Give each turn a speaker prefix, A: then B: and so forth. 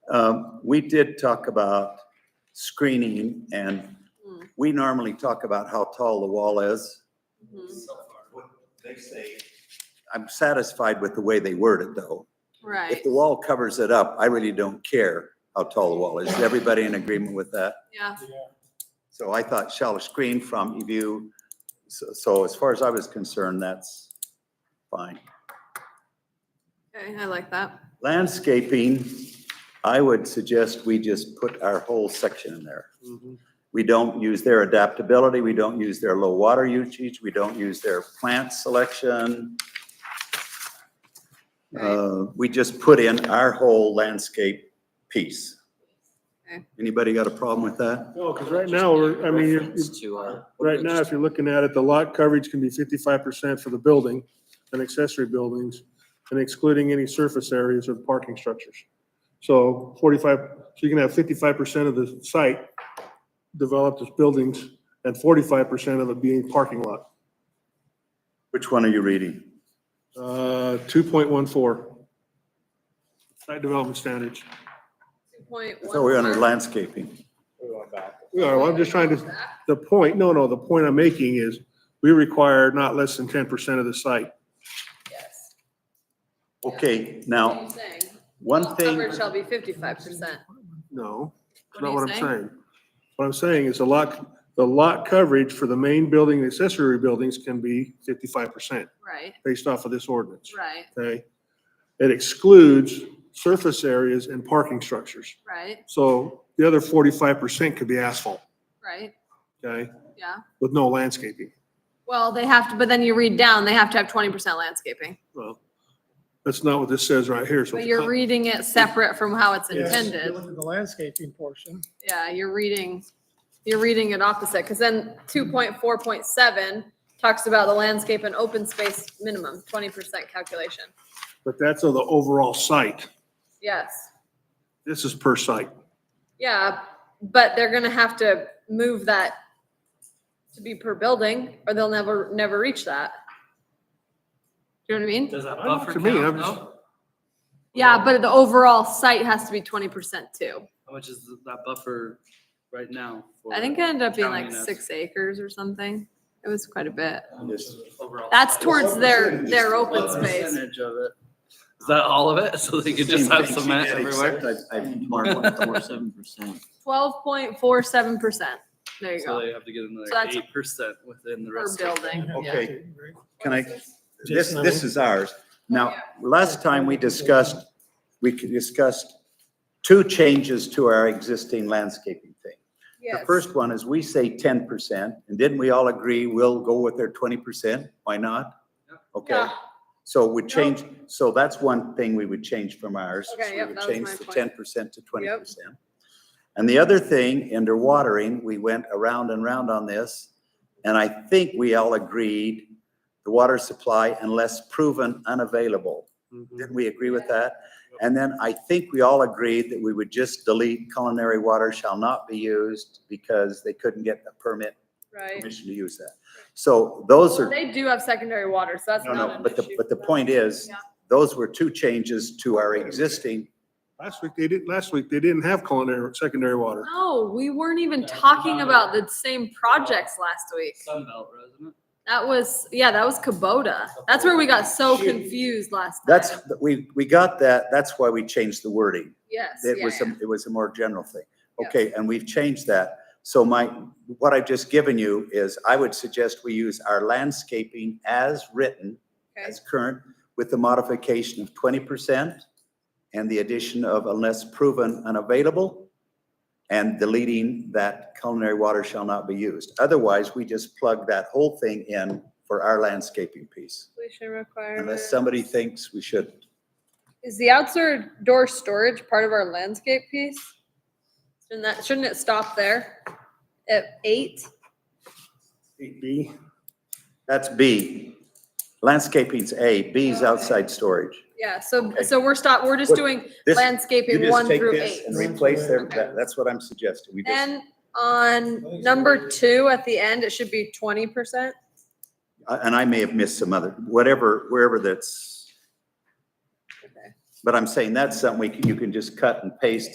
A: Um, We did talk about screening and
B: Mm.
A: we normally talk about how tall the wall is.
B: Mhm.
A: They say. I'm satisfied with the way they word it though. If
B: Right,
A: the wall covers it up, I really don't care how tall the wall is. Is everybody in agreement with that?
B: yeah,
A: So I thought shall screen from view. So, so as far as I was concerned, that's fine.
B: okay, I like that.
A: Landscaping, I would suggest we just put our whole section in there.
C: Mm-hmm.
A: We don't use their adaptability, we don't use their low water usage, we don't use their plant selection.
B: Right.
A: Uh, we just put in our whole landscape piece.
B: Okay.
A: Anybody got a problem with that?
C: No, because Oh, right now, we're, I mean, you're-
D: Reference to uh, our-
C: right now, if you're looking at it, the lot coverage can be fifty-five percent for the building and accessory buildings, and excluding any surface areas or parking structures. So forty-five, so you can have fifty-five percent of the site developed as buildings, and forty-five percent of it being parking lot.
A: Which one are you reading?
C: Uh, two point one four. Site development standards.
B: Two point one.
A: So we're under landscaping.
C: We are, well, I'm just trying to. The point, no, no, the point I'm making is we require not less than ten percent of the site.
B: Yes.
A: Okay,
B: What are
A: now,
B: you saying?
A: one
B: All
A: thing.
B: Coverage shall be fifty-five percent.
C: No,
B: What are
C: that's not
B: you
C: what I'm
B: saying?
C: saying. What I'm saying is the lot, the lot coverage for the main building and accessory buildings can be fifty-five percent
B: Right,
C: based off of this ordinance.
B: right,
C: Okay? It excludes surface areas and parking structures.
B: right,
C: So the other forty-five percent could be asphalt,
B: right,
C: okay,
B: yeah.
C: with no landscaping.
B: Well, they have to, but then you read down, they have to have twenty percent landscaping.
C: Well, that's not what this says right here, so.
B: But
C: it's
B: you're
C: not-
B: reading it separate from how it's
E: Yes, if you
B: intended.
E: look at The landscaping portion.
B: Yeah, you're reading, you're reading it opposite, because then two point four point seven talks about the landscape and open space minimum, twenty percent calculation.
C: But that's of the overall site.
B: Yes.
C: This is per site.
B: Yeah, but they're gonna have to move that to be per building, or they'll never, never reach that. Do you know what I mean?
D: Does that
C: I know what
D: buffer
C: you mean,
D: count
C: I'm
D: though?
C: just-
B: Yeah, but the overall site has to be twenty percent too.
D: How much is that buffer right now? for
B: I think uh, it ended up being like
D: counting us?
B: six acres or something. It was quite a bit.
D: Overall
B: That's
D: size.
B: towards their, their open
D: What
B: space.
D: percentage of it? Is that all of it? So they could just have cement everywhere?
F: seven percent.
B: Twelve point four seven percent. There you
D: So
B: go.
D: they have to get
B: So that's-
D: another eight percent within the
B: Per
D: rest. of it.
B: building, yeah.
A: Okay, can I, this,
E: Jason,
A: this is ours. Now, last time we discussed, we discussed two changes to our existing landscaping thing. The
B: Yes.
A: first one is we say ten percent, and didn't we all agree we'll go with their twenty percent? Why not?
D: Yeah.
A: Okay,
B: Yeah,
A: so we change, so that's one thing we would change from ours. is
B: Okay,
A: we
B: yep,
A: would
B: that was
A: Change
B: my
A: the
B: point.
A: ten percent to twenty percent. And the other thing, under watering, we went around and round on this, and I think we all agreed the water supply unless proven unavailable. Didn't we agree with that? And then I think we all agreed that we would just delete culinary water shall not be used because they couldn't get a permit,
B: right.
A: permission to use that. So those
B: Well,
A: are,
B: They do have secondary water, so that's
A: no,
B: not
A: no,
B: an
A: but the,
B: issue
A: but the
B: for them.
A: point is,
B: Yeah.
A: those were two changes to our existing,
C: Last week, they didn't, last week, they didn't have culinary, secondary water.
B: No, we weren't even
D: Yeah,
B: talking
D: no.
B: about the same projects last week.
D: Sunbelt resident.
B: That was, yeah, that was Kubota. That's where we got so
A: Shoot.
B: confused last time.
A: that's, we, we got that, that's why we changed the wording.
B: Yes,
A: It
B: yeah,
A: was,
B: yeah.
A: a- it was a more general thing.
B: Yeah.
A: Okay, and we've changed that. So my, what I've just given you is, I would suggest we use our landscaping as written
B: Okay,
A: as current with the modification of twenty percent and the addition of unless proven unavailable and deleting that culinary water shall not be used. Otherwise, we just plug that whole thing in for our landscaping piece.
B: Completion requirement.
A: Unless somebody thinks we should.
B: Is the outdoor storage part of our landscape piece? Shouldn't that, shouldn't it stop there at eight?
C: B.
A: That's B. Landscaping's A, B's outside storage.
B: Yeah, so,
A: Okay.
B: so we're stop, we're just
A: What-
B: doing
A: This, you
B: landscaping
A: just
B: one
A: take
B: through
A: this
B: eight.
A: and replace their,
B: Okay.
A: that- that's what I'm suggesting. We just,
B: Then on number two at the end, it should be twenty percent.
A: and I may have missed some other, whatever, wherever that's,
B: Okay.
A: but I'm saying that's something we can, you can just cut and paste